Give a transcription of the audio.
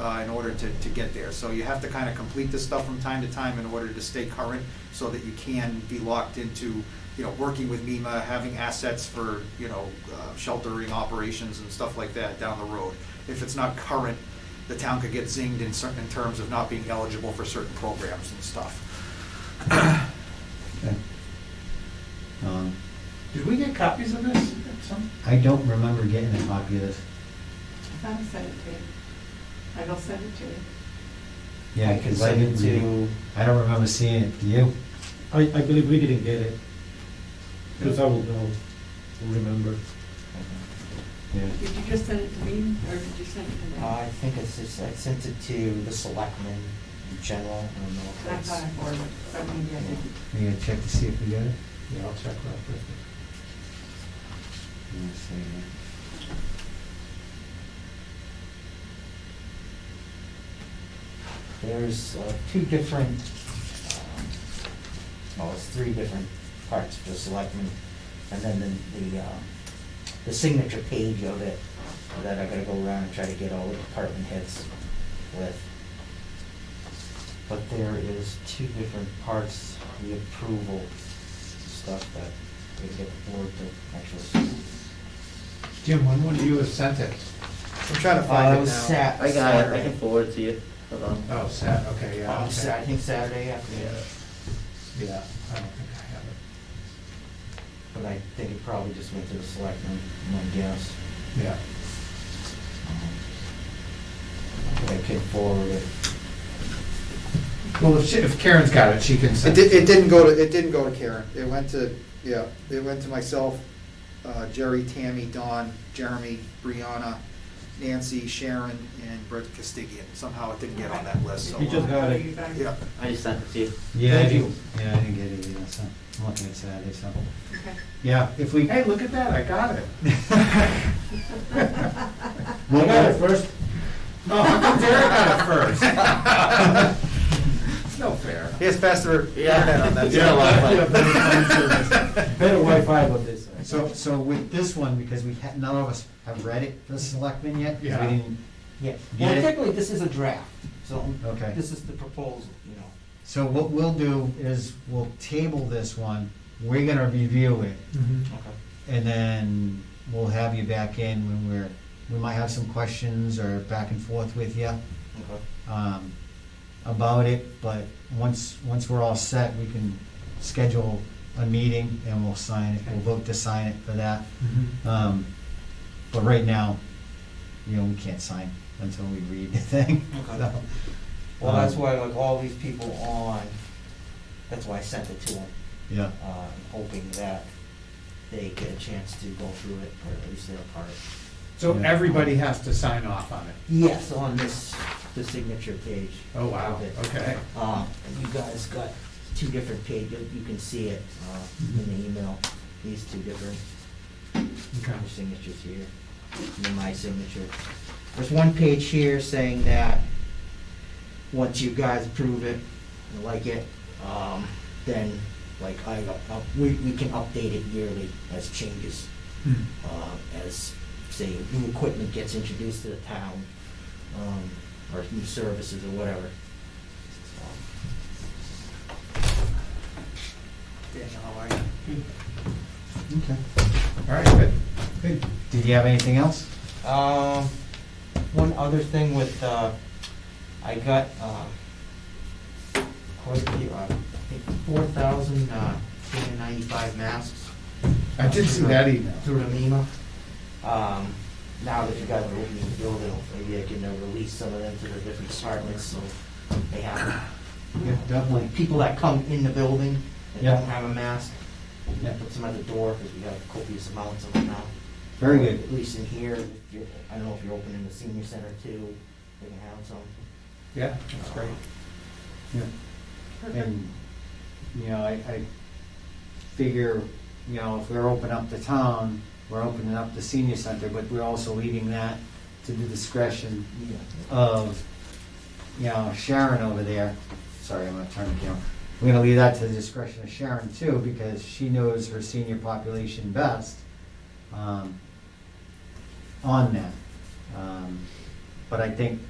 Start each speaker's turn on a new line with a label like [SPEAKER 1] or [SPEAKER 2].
[SPEAKER 1] uh, in order to, to get there. So you have to kind of complete this stuff from time to time in order to stay current, so that you can be locked into, you know, working with MEMA, having assets for, you know, uh, sheltering operations and stuff like that down the road. If it's not current, the town could get zinged in certain, in terms of not being eligible for certain programs and stuff.
[SPEAKER 2] Okay. Um,
[SPEAKER 3] Did we get copies of this at some?
[SPEAKER 2] I don't remember getting a copy of this.
[SPEAKER 4] I thought I sent it to you. I will send it to you.
[SPEAKER 2] Yeah,
[SPEAKER 3] I can
[SPEAKER 2] because I
[SPEAKER 3] send it
[SPEAKER 2] didn't read it. I don't remember seeing it. Do you?
[SPEAKER 5] I, I believe we didn't get it, because I will know, remember.
[SPEAKER 2] Yeah.
[SPEAKER 4] Did you just send it to me or did you send it to
[SPEAKER 3] Uh, I
[SPEAKER 4] them?
[SPEAKER 3] think it's, it's- I sent it to the selectmen in general, I don't know if
[SPEAKER 4] I
[SPEAKER 3] it's,
[SPEAKER 4] thought I forwarded, it, but maybe I didn't.
[SPEAKER 2] We gotta check to see if we got it.
[SPEAKER 5] Yeah, I'll check that with
[SPEAKER 2] Let me see here.
[SPEAKER 3] there's uh, two different, um, well, it's three different parts for the selectmen, and then the, the, um, the signature page of it, that I gotta go around and try to get all the department heads with. But there is two different parts, the approval stuff that we get the board to actually.
[SPEAKER 5] Jim, when would you have sent it?
[SPEAKER 3] I'm trying
[SPEAKER 5] to find it
[SPEAKER 3] Uh, was
[SPEAKER 5] now.
[SPEAKER 3] Sat-
[SPEAKER 6] I got it, I
[SPEAKER 3] Saturday.
[SPEAKER 6] can forward it to you. Hold on.
[SPEAKER 5] Oh, Sat, okay, yeah.
[SPEAKER 3] Um,
[SPEAKER 5] okay.
[SPEAKER 3] Sa- I think Saturday afternoon,
[SPEAKER 5] Yeah, I don't think I have it.
[SPEAKER 3] but I think it probably just went to the selectmen, my guess.
[SPEAKER 5] Yeah.
[SPEAKER 3] But I could forward it.
[SPEAKER 5] Well, if she- if Karen's got it, she can
[SPEAKER 1] It
[SPEAKER 5] send it.
[SPEAKER 1] did, it didn't go to, it didn't go to Karen, it went to, yeah, it went to myself, uh, Jerry, Tammy, Don, Jeremy, Brianna, Nancy, Sharon, and Brett Castigian, somehow it didn't get on that list, so. uh,
[SPEAKER 5] You just got it.
[SPEAKER 4] You guys-
[SPEAKER 1] Yeah,
[SPEAKER 6] I just sent it to you.
[SPEAKER 2] Yeah, I
[SPEAKER 5] Thank
[SPEAKER 2] didn't, yeah, I didn't get it either, so I'm looking at Saturday, so.
[SPEAKER 4] Okay.
[SPEAKER 2] Yeah, if we.
[SPEAKER 5] Hey, look at that, I got it.
[SPEAKER 2] Well,
[SPEAKER 5] first. Oh, how come Derek got it first? It's no fair.
[SPEAKER 1] he has faster
[SPEAKER 6] Yeah.
[SPEAKER 1] internet on that.
[SPEAKER 6] Yeah,
[SPEAKER 1] side.
[SPEAKER 6] Wi-Fi.
[SPEAKER 5] Yeah, better phone service. Better Wi-Fi with this.
[SPEAKER 2] So, so with this one, because we, ha- none of us have read it, the selectmen yet? 'cause we
[SPEAKER 5] Yeah.
[SPEAKER 2] didn't-
[SPEAKER 3] Yeah,
[SPEAKER 2] You
[SPEAKER 3] well,
[SPEAKER 2] did?
[SPEAKER 3] technically, this is a draft, so
[SPEAKER 2] Okay.
[SPEAKER 3] this is the proposal, you know.
[SPEAKER 2] So what we'll do is, we'll table this one, we're gonna review it,
[SPEAKER 5] Mm-hmm.
[SPEAKER 3] Okay.
[SPEAKER 2] and then we'll have you back in when we're, we might have some questions or back and forth with you
[SPEAKER 3] Okay.
[SPEAKER 2] um, about it, but once, once we're all set, we can schedule a meeting and we'll sign it, we'll vote to sign it for that. Um, But right now, you know, we can't sign until we read the thing,
[SPEAKER 3] Okay.
[SPEAKER 2] so.
[SPEAKER 3] Well, that's
[SPEAKER 2] um,
[SPEAKER 3] why, like, all these people on, that's why I sent it to them,
[SPEAKER 2] Yeah,
[SPEAKER 3] uh, hoping that they get a chance to go through it, or at least their part.
[SPEAKER 5] So everybody has to sign off on it.
[SPEAKER 3] Yes, on this, the signature page.
[SPEAKER 5] Oh, wow,
[SPEAKER 3] of it.
[SPEAKER 5] okay.
[SPEAKER 3] Uh, You guys got two different pages, you can see it uh, in the email, these two different
[SPEAKER 5] Okay.
[SPEAKER 3] your signatures here, and then my signature. There's one page here saying that, once you guys approve it and like it, um, then, like, I, uh, we, we can update it yearly as changes
[SPEAKER 5] Hmm.
[SPEAKER 3] um, as, say, new equipment gets introduced to the town, um, or new services or whatever.
[SPEAKER 1] Daniel, how are you?
[SPEAKER 2] okay.
[SPEAKER 5] All right, good.
[SPEAKER 2] Good. Did you have anything else?
[SPEAKER 3] Um, one other thing with, uh, I got, uh, quite a few, uh, I think four thousand, uh, three hundred ninety-five masks.
[SPEAKER 5] I did see that email.
[SPEAKER 3] Through the NEMA. Um, now that you guys are opening the building, maybe I can uh, release some of them to the different departments, so they have
[SPEAKER 2] Yeah, definitely.
[SPEAKER 3] people that come in the building that
[SPEAKER 2] Yeah.
[SPEAKER 3] don't have a mask, we
[SPEAKER 2] Yeah.
[SPEAKER 3] put some at the door, because we have copious amounts of them now.
[SPEAKER 2] Very
[SPEAKER 3] Or
[SPEAKER 2] good.
[SPEAKER 3] At least in here, if you're- I don't know if you're opening the senior center too, they can have some. Um,
[SPEAKER 5] Yeah, that's great.
[SPEAKER 2] Yeah. And, you know, I, I figure, you know, if we're opening up the town, we're opening up the senior center, but we're also leaving that to the discretion
[SPEAKER 3] Yeah.
[SPEAKER 2] of, you know, Sharon over there. Sorry, I'm gonna turn the camera. We're gonna leave that to the discretion of Sharon too, because she knows her senior population best, um, on that. Um, But I think